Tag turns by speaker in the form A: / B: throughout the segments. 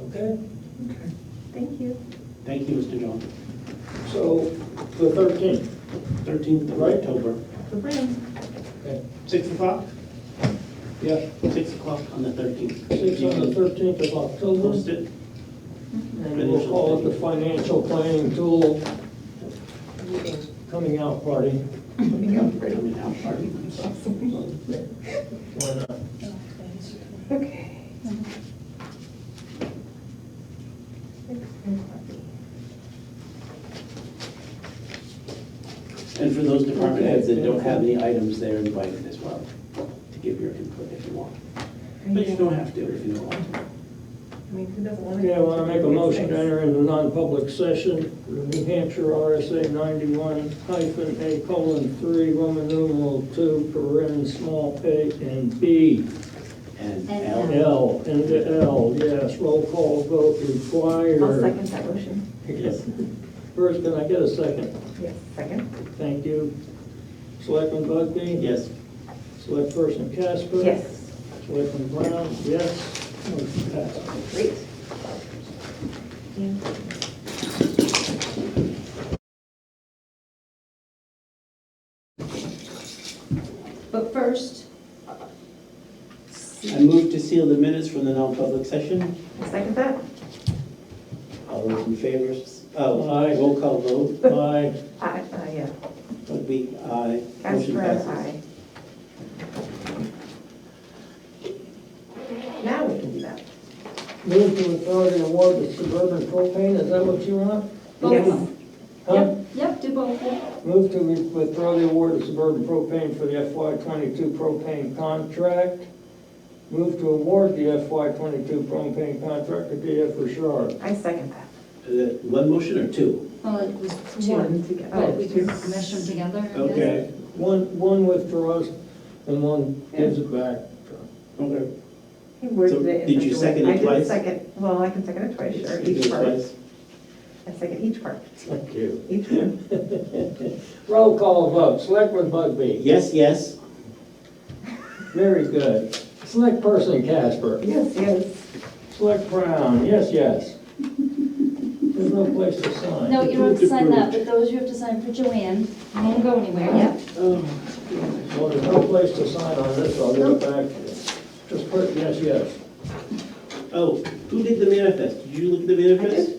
A: Okay,
B: Okay.
C: Thank you.
A: thank you, Mr. John.
B: So the thirteenth,
A: 13th of
B: Right.
A: October,
B: okay,
A: 6 o'clock?
B: yes,
A: 6 o'clock on the 13th.
B: six on the thirteenth of
A: Post
B: October,
A: it.
B: and we'll call it the financial planning tool coming out party.
A: Coming out party.
B: Why not?
C: Okay.
A: And for those department heads that don't have any items, they're invited as well to give your input if you want. But you don't have to if you don't want to.
C: I mean, who doesn't want to?
B: Okay, I want to make a motion to enter into non-public session, New Hampshire RSA ninety-one hyphen A colon three, Roman numeral two, paren small a and B,
A: And
D: And
C: uh,
A: Al,
B: L, and the L, yes, roll call vote required.
C: I'll second that motion.
B: First, can I get a second?
C: Yes, second?
B: Thank you. Selectman Bugby?
A: yes,
B: Selectperson Casper?
C: Yes.
B: Selectman Brown? Yes. Motion passes.
C: Great. Yeah.
D: But first,
A: I move to seal the minutes from the non-public session.
C: I'll Second that?
A: All those in favor, s- oh,
B: Aye.
A: roll call vote,
B: Aye.
C: Aye, aye, uh, yeah.
A: would be aye. Motion
C: Casper,
A: passes.
C: aye. Now we can do that.
B: Move to authority award to Suburban Propane, is that what you want?
D: both
C: Yes.
D: of
B: Huh?
D: them. Yep, do both of them.
B: Move to re- withdraw the award to Suburban Propane for the FY twenty-two propane contract. Move to award the FY twenty-two propane contract to DF Richard.
C: I second that.
A: Uh, One motion or two?
D: Well, it was
C: Two
D: one,
C: together.
D: but we
C: two.
D: could mesh them together, I guess.
A: Okay.
B: One, one withdraws and one gives it back.
A: Okay.
C: He worded
A: So
C: it in
A: did
C: such
A: you
C: a way-
A: second it
C: I did
A: twice?
C: second, well, I can second it twice, sure, each part.
A: Twice.
C: I second each part,
B: Thank you.
C: each one.
B: Roll call vote, Selectman Bugby.
A: Yes, yes,
B: Very good. Select person Casper.
C: Yes, yes.
B: Select Brown, yes, yes. There's no place to sign.
D: No, you don't have to sign that, but those you have to sign for Joanne, I won't go anywhere. Yep.
B: Well, there's no place to sign on this, I'll give it back to you. Just put, yes, yes.
A: oh, who did the manifest? Did you look at the manifest?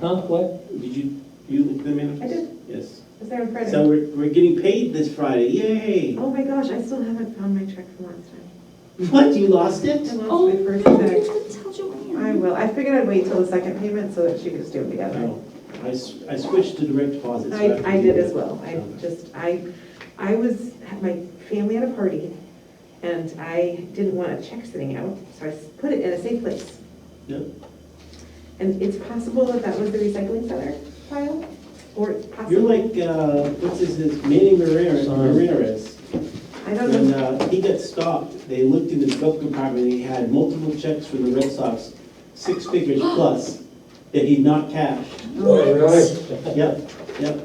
B: Huh, what?
A: Did you, you look at the manifest?
C: I did.
A: Yes.
C: Is there a credit?
A: So we're, we're getting paid this Friday, yay!
C: Oh my gosh, I still haven't found my check from last time.
A: What, you lost it?
C: I
D: Oh,
C: lost my
D: no,
C: first
D: you have
C: check.
D: to tell
C: I
D: Joanne.
C: will, I figured I'd wait till the second payment so that she could just do it together.
A: No, Oh, I, s- I switched to direct deposit. so
C: I,
A: have to
C: I
A: do
C: did
A: that.
C: as well, I
A: Okay.
C: just, I, I was, had my family had a party, and I didn't want a check sitting out, so I s- put it in a safe place.
A: Yep.
C: And it's possible that that was the recycling center pile, or it's
A: You're
C: possible,
A: like, uh, what's his, his Manny Ramirez,
B: Sorry.
A: Ramirez.
C: I don't know.
A: When, uh, he got stopped, they looked in his glove compartment, he had multiple checks from the Red Sox, six figures plus, that he'd not cashed.
B: Oh, really?
A: Yep, yep.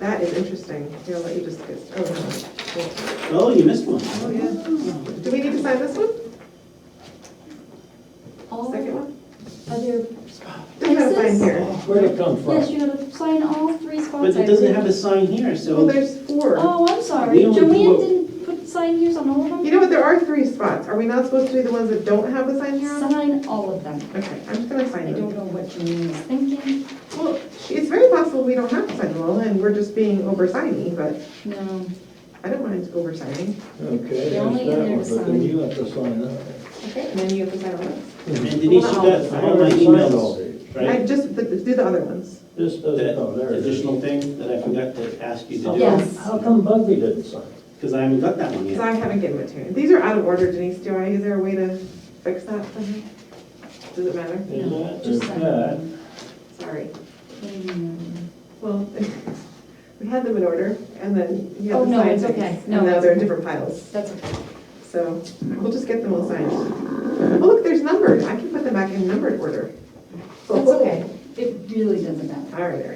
C: That is interesting. Here, I'll let you just get, oh, no.
A: Oh, you missed one.
C: Oh, yeah. Do we need to sign this one?
D: All,
C: Second
D: are
C: one?
D: there
C: We gotta sign
D: X's?
C: here.
B: Where'd it come
D: Yes,
B: from?
D: you gotta sign all three
A: But
D: spots. I
A: it doesn't
D: think.
A: have a sign here,
C: Well,
A: so,
C: there's four.
D: Oh, I'm sorry,
A: We only do
D: Joanne
A: what-
D: didn't put sign yours on all of
C: You
D: them?
C: know what, there are three spots. Are we not supposed to be the ones that don't have the sign here on?
D: Sign all of them.
C: Okay, I'm just gonna
D: I
C: sign
D: don't
C: them.
D: know what Joanne was thinking,
C: Well, it's very possible we don't have to sign them all, and we're just being oversigny, but
D: no.
C: I don't mind oversigning.
B: Okay,
D: They're
B: there's
D: only
B: that
D: in there
B: one,
D: to
B: but then
D: sign.
B: you have to sign that.
C: And then you have to sign all this.
A: and Denise, you
C: Well,
A: got
B: I
A: all my
B: already signed all
A: emails,
B: these.
C: I
A: right?
C: just, but do the other ones.
B: This doesn't, oh,
A: That
B: there it is.
A: additional thing that I forgot to ask you to
B: How
A: do.
B: come-
D: Yes.
B: How come Bugby didn't sign?
A: Because I haven't got that one
C: Because
A: yet.
C: I haven't given it to you. These are out of order, Denise. Do I, is there a way to fix that somehow? Does it matter?
B: Is
D: No,
B: that-
D: just
B: is
D: sign
B: that-
D: them.
C: Sorry.
D: Mm.
C: Well, we had them in order, and then you
D: Oh,
C: had the
D: no,
C: signed
D: it's okay.
C: things.
D: No,
C: And now
D: it's
C: they're in
D: okay.
C: different piles,
D: That's okay.
C: so we'll just get them all signed. Oh, look, there's numbered, I can put them back in numbered order.
D: That's Oh, okay. It really doesn't matter.
C: All right,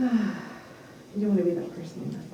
C: all right. You don't want to be that person,